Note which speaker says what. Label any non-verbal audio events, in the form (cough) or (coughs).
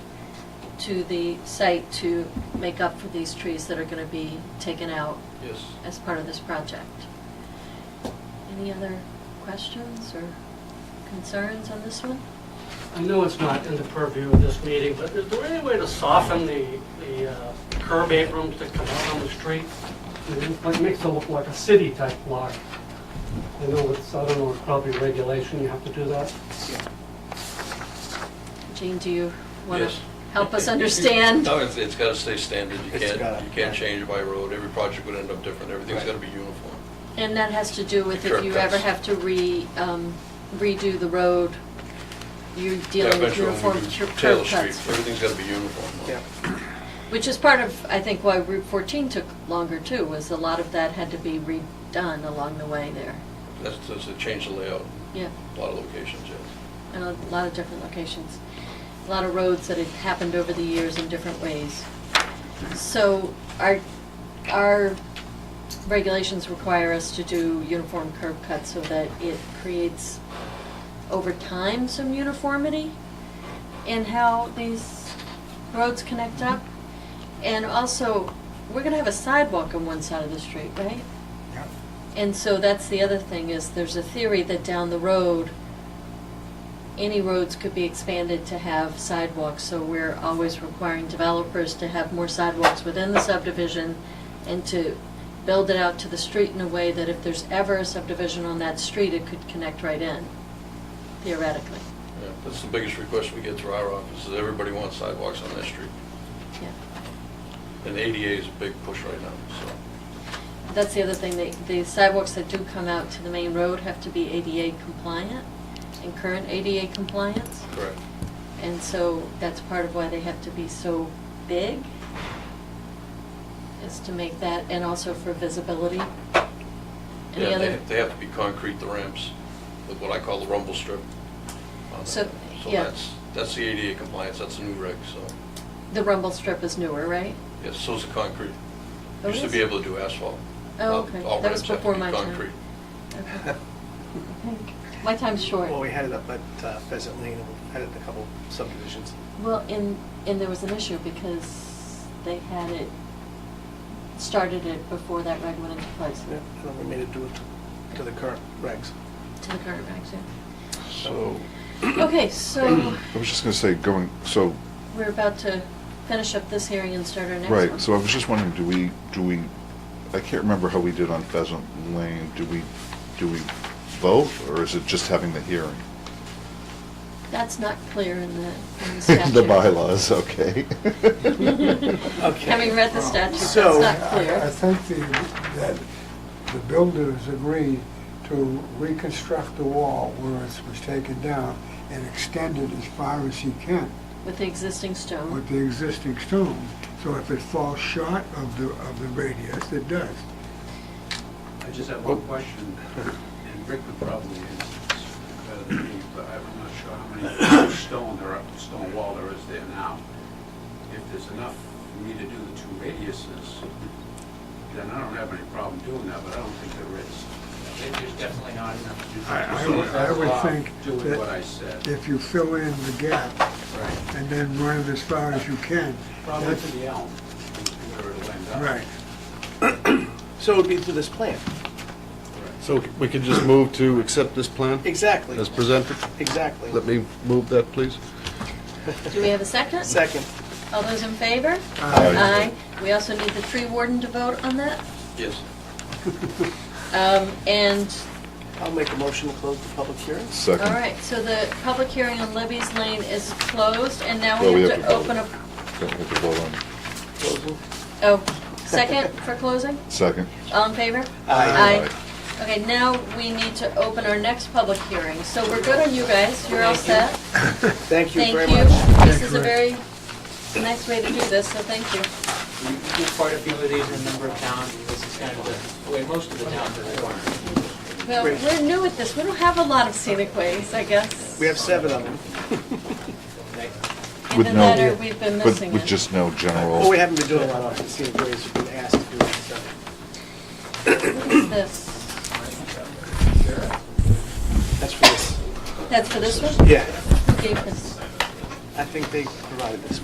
Speaker 1: to the site to make up for these trees that are going to be taken out
Speaker 2: Yes.
Speaker 1: as part of this project. Any other questions or concerns on this one?
Speaker 3: I know it's not in the purview of this meeting, but is there any way to soften the, the uh, curb aprons that come out on the street? It like, makes it look like a city-type block. I know it's, I don't know, it's probably regulation, you have to do that.
Speaker 1: Jean, do you want to
Speaker 2: Yes.
Speaker 1: help
Speaker 2: (laughs)
Speaker 1: us understand?
Speaker 2: No, it's, it's gotta stay standard, you
Speaker 4: It's
Speaker 2: can't,
Speaker 4: gotta-
Speaker 2: you can't change by road, every project would end up different, everything's
Speaker 4: Right.
Speaker 2: gotta be uniform.
Speaker 1: And that has to do with if you
Speaker 2: Shortcuts.
Speaker 1: ever have to re, um, redo the road, you're
Speaker 2: Yeah,
Speaker 1: dealing with
Speaker 2: eventually when we
Speaker 1: uniform
Speaker 2: do
Speaker 1: cur-
Speaker 2: Taylor
Speaker 1: curb
Speaker 2: Street,
Speaker 1: cuts.
Speaker 2: everything's gotta be uniform. though.
Speaker 4: Yeah.
Speaker 1: Which is part of, I think, why Route 14 took longer too, was a lot of that had to be redone along the way there.
Speaker 2: That's, that's to change the layout,
Speaker 1: Yeah,
Speaker 2: a lot of locations, yes.
Speaker 1: and a lot of different locations. A lot of roads that had happened over the years in different ways. So our, our regulations require us to do uniform curb cuts so that it creates over time some uniformity in how these roads connect up. And also, we're gonna have a sidewalk on one side of the street, right?
Speaker 4: Yeah.
Speaker 1: And so that's the other thing is there's a theory that down the road, any roads could be expanded to have sidewalks. So we're always requiring developers to have more sidewalks within the subdivision and to build it out to the street in a way that if there's ever a subdivision on that street, it could connect right in, theoretically.
Speaker 2: Yeah, That's the biggest request we get through our office, is everybody wants sidewalks on that street.
Speaker 1: Yeah.
Speaker 2: And ADA is a big push right now, so.
Speaker 1: That's the other thing, the- the sidewalks that do come out to the main road have to be ADA compliant and current ADA compliance.
Speaker 2: Correct.
Speaker 1: And so that's part of why they have to be so big, is to make that, and also for visibility. And the
Speaker 2: Yeah, they,
Speaker 1: other,
Speaker 2: they have to be concrete, the ramps, with what I call the rumble strip. on
Speaker 1: So,
Speaker 2: that. So
Speaker 1: yeah.
Speaker 2: that's, that's the ADA compliance, that's the new reg, so.
Speaker 1: the rumble strip is newer, right?
Speaker 2: Yes, so's the concrete.
Speaker 1: Oh,
Speaker 2: Used to
Speaker 1: is
Speaker 2: be
Speaker 1: it?
Speaker 2: able to do asphalt. Now
Speaker 1: Oh, okay,
Speaker 2: all
Speaker 1: that was
Speaker 2: ramps have to
Speaker 1: before
Speaker 2: be
Speaker 1: my time.
Speaker 2: concrete. (laughs)
Speaker 1: Okay. My time's short.
Speaker 4: Well, we had it up at uh, Pheasant Lane, and we had it in a couple subdivisions.
Speaker 1: Well, and, and there was an issue because they had it, started it before that reg went into place,
Speaker 4: Yeah, And then we made it do it to the current regs.
Speaker 1: to the current regs, yeah.
Speaker 5: So,
Speaker 1: Okay, so
Speaker 5: I was just gonna say, going, so,
Speaker 1: we're about to finish up this hearing and start our next one.
Speaker 5: right, so I was just wondering, do we, do we, I can't remember how we did on Pheasant Lane, do we, do we vote, or is it just having the hearing?
Speaker 1: That's not clear in the,
Speaker 5: (laughs)
Speaker 1: in the statute.
Speaker 5: The
Speaker 6: (laughs)
Speaker 5: bylaws, (laughs) okay.
Speaker 1: Having read the statute, that's
Speaker 4: So-
Speaker 1: not
Speaker 7: I I
Speaker 1: clear.
Speaker 7: think the, that the builders agreed to reconstruct the wall where it was taken down and extend it as far as he can
Speaker 1: With the existing
Speaker 7: with
Speaker 1: stone,
Speaker 7: the existing stone. So if it falls short of the, of the radius, it does.
Speaker 8: I just have one question, and Rick would probably answer this better than me, but I'm not sure how many (coughs) stone there are, stone wall there is there now. If there's enough for me to do the two radiuses, then I don't have any problem doing that, but I don't think there is.
Speaker 9: There's definitely not enough to do.
Speaker 7: I- I
Speaker 8: So
Speaker 7: would- I would
Speaker 8: that's
Speaker 7: think
Speaker 8: why I'm Doing
Speaker 7: that-
Speaker 8: what I said.
Speaker 7: If you fill in the gap
Speaker 8: Right.
Speaker 7: and then run it as far as you can,
Speaker 8: Probably
Speaker 7: that's,
Speaker 8: to the elm, where it'll end up.
Speaker 7: right.
Speaker 4: So it would be through this plan.
Speaker 6: So we can just move to accept this plan
Speaker 4: Exactly,
Speaker 6: as presented?
Speaker 4: exactly.
Speaker 6: Let me move that, please.
Speaker 1: do we have a second?
Speaker 4: Second.
Speaker 1: All those in favor?
Speaker 5: Aye.
Speaker 1: We also need the tree warden to vote on that.
Speaker 2: Yes.
Speaker 1: Um, and,
Speaker 4: I'll make a motion to close the public hearing.
Speaker 1: all
Speaker 5: Second.
Speaker 1: right, so the public hearing on Libby's Lane is closed, and now
Speaker 5: Well,
Speaker 1: we have to open
Speaker 5: vote.
Speaker 1: up,
Speaker 5: Don't we have to vote on,
Speaker 4: Closing.
Speaker 1: oh, second for closing? (laughs)
Speaker 5: second.
Speaker 1: All in favor?
Speaker 4: Aye.
Speaker 1: Aye. Okay, now we need to open our next public hearing. So we're good on you guys, you're all set?
Speaker 4: Thank you
Speaker 1: Thank
Speaker 4: very
Speaker 1: you.
Speaker 4: much.
Speaker 1: This is a very nice way to do this, so thank you.
Speaker 9: We do quite a few of these in a number of towns, and this is kind of the, way most of the towns are doing.
Speaker 1: Well,
Speaker 4: Great.
Speaker 1: we're new at this, we don't have a lot of scenic ways, I guess.
Speaker 4: We have seven of them.
Speaker 1: And
Speaker 5: With
Speaker 1: the
Speaker 5: no-
Speaker 1: letter, we've been
Speaker 5: But
Speaker 1: missing
Speaker 5: with
Speaker 1: it.
Speaker 5: just no
Speaker 4: Well, we
Speaker 5: general,
Speaker 4: haven't been doing a lot of scenic ways, we've been asked to do it, so.
Speaker 1: What is this?
Speaker 4: That's for this.
Speaker 1: That's for this one?
Speaker 4: Yeah,
Speaker 1: Who gave this?
Speaker 4: I think they provided this